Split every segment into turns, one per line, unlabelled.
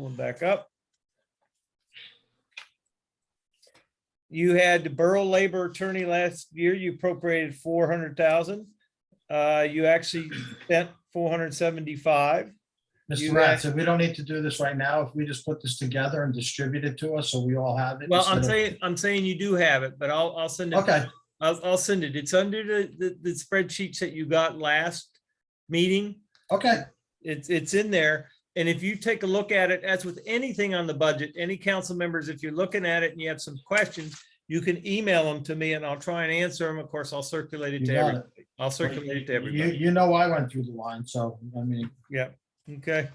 Pulling back up. You had the borough labor attorney last year, you appropriated four hundred thousand. Uh, you actually spent four hundred seventy-five.
Mr.
You
Ratz, if we don't need to do this right now, if we just put this together and distribute it to us, so we all have it.
Well, I'm
instead
saying, I'm saying you do have it, but I'll, I'll send
of-
it.
Okay,
I'll, I'll send it. It's under the, the, the spreadsheets that you got last meeting.
okay,
It's, it's in there. And if you take a look at it, as with anything on the budget, any council members, if you're looking at it and you have some questions, you can email them to me and I'll try and answer them. Of course, I'll circulate it
you
to
got
every,
it.
I'll circulate it to
You,
everybody.
you know I went through the line, so, I mean,
Okay.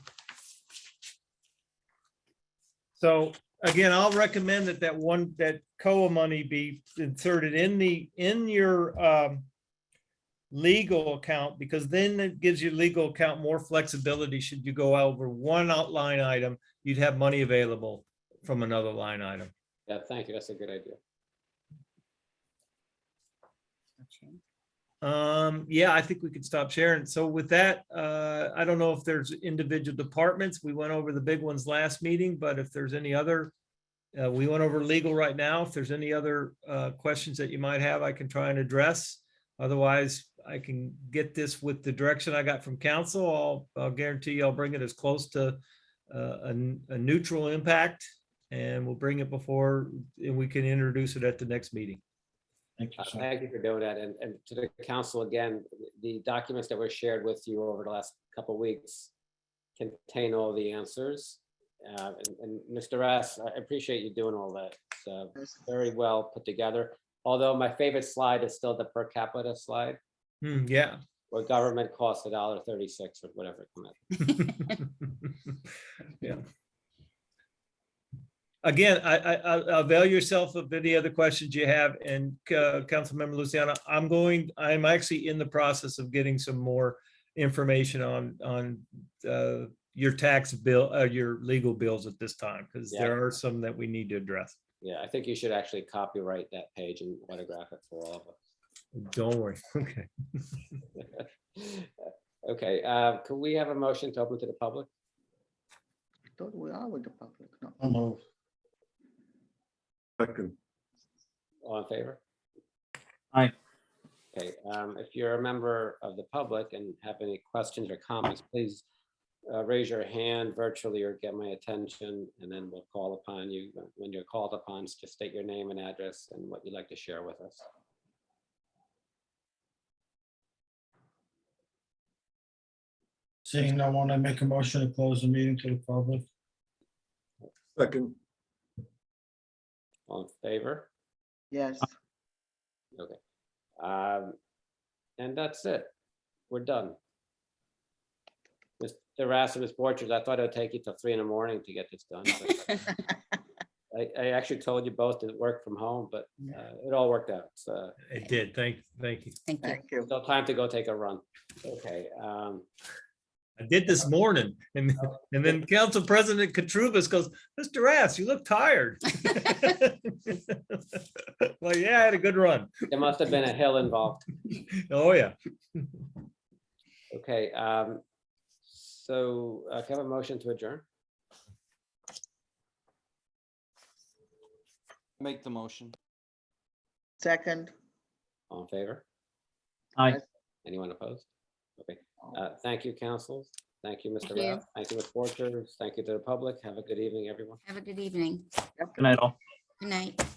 So again, I'll recommend that that one, that COA money be inserted in the, in your um legal account, because then it gives your legal account more flexibility. Should you go over one out- line item, you'd have money available from another line item.
Yeah, thank you. That's a good idea. Uh,
Um, yeah, I think we could stop sharing. So with that, uh, I don't know if there's individual departments. We went over the big ones last meeting, but if there's any other, uh, we went over legal right now. If there's any other, uh, questions that you might have, I can try and address. Otherwise, I can get this with the direction I got from council. I'll, I'll guarantee you I'll bring it as close to, uh, a, n- a neutral impact and we'll bring it before, and we can introduce it at the next meeting.
thank you,
Uh,
sir.
Thank you for doing that. And, and to the council again, the documents that were shared with you over the last couple of weeks contain all the answers. Uh, and- And Mr. Rass, I appreciate you doing all that. It's uh, very well put together. Although my favorite slide is still the per capita slide,
Hmm, yeah.
where government costs a dollar thirty-six or whatever. it come out.
Yeah. Again, I, I, I- avail yourself of any other questions you have and, uh, Councilmember Luciana, I'm going, I'm actually in the process of getting some more information on, on, uh, your tax bill, uh, your legal bills at this time, because there are some that we need to address.
Yeah, I think you should actually copyright that page and autograph it for all of us.
Don't worry. Okay.
Okay, uh, could we have a motion to open to the public?
thought we are with the public, no.
I'll move.
Second,
All in favor?
Aye.
Okay, um, if you're a member of the public and have any questions or comments, please uh, raise your hand virtually or get my attention, and then we'll call upon you. When you're called upon, just state your name and address and what you'd like to share with us.
Seeing no one, I make a motion to close the meeting to the public.
second,
All in favor?
Yes,
Um, And that's it. We're done. Mr. Rasmus Borchers, I thought it would take you till three in the morning to get this done. but uh, I, I actually told you both to work from home, but uh, it all worked out. So
It did. Thank, thank you.
Thank you.
thank you.
no time to go take a run. Okay, um,
I did this morning and, and then Council President Katrubis goes, Mr. Rass, you look tired. Well, yeah, I had a good run.
there must have been a hill involved.
Oh, yeah.
Okay, um, so uh, can I have a motion to adjourn?
Make the motion.
Second,
All in favor?
Aye.
Anyone opposed? Okay, uh, thank you, councils. Thank you, Mr.
Thank you.
Rath. Thank you, Ms. Borchers. Thank you to the public. Have a good evening, everyone.
Have a good evening.
Yep.
Good night.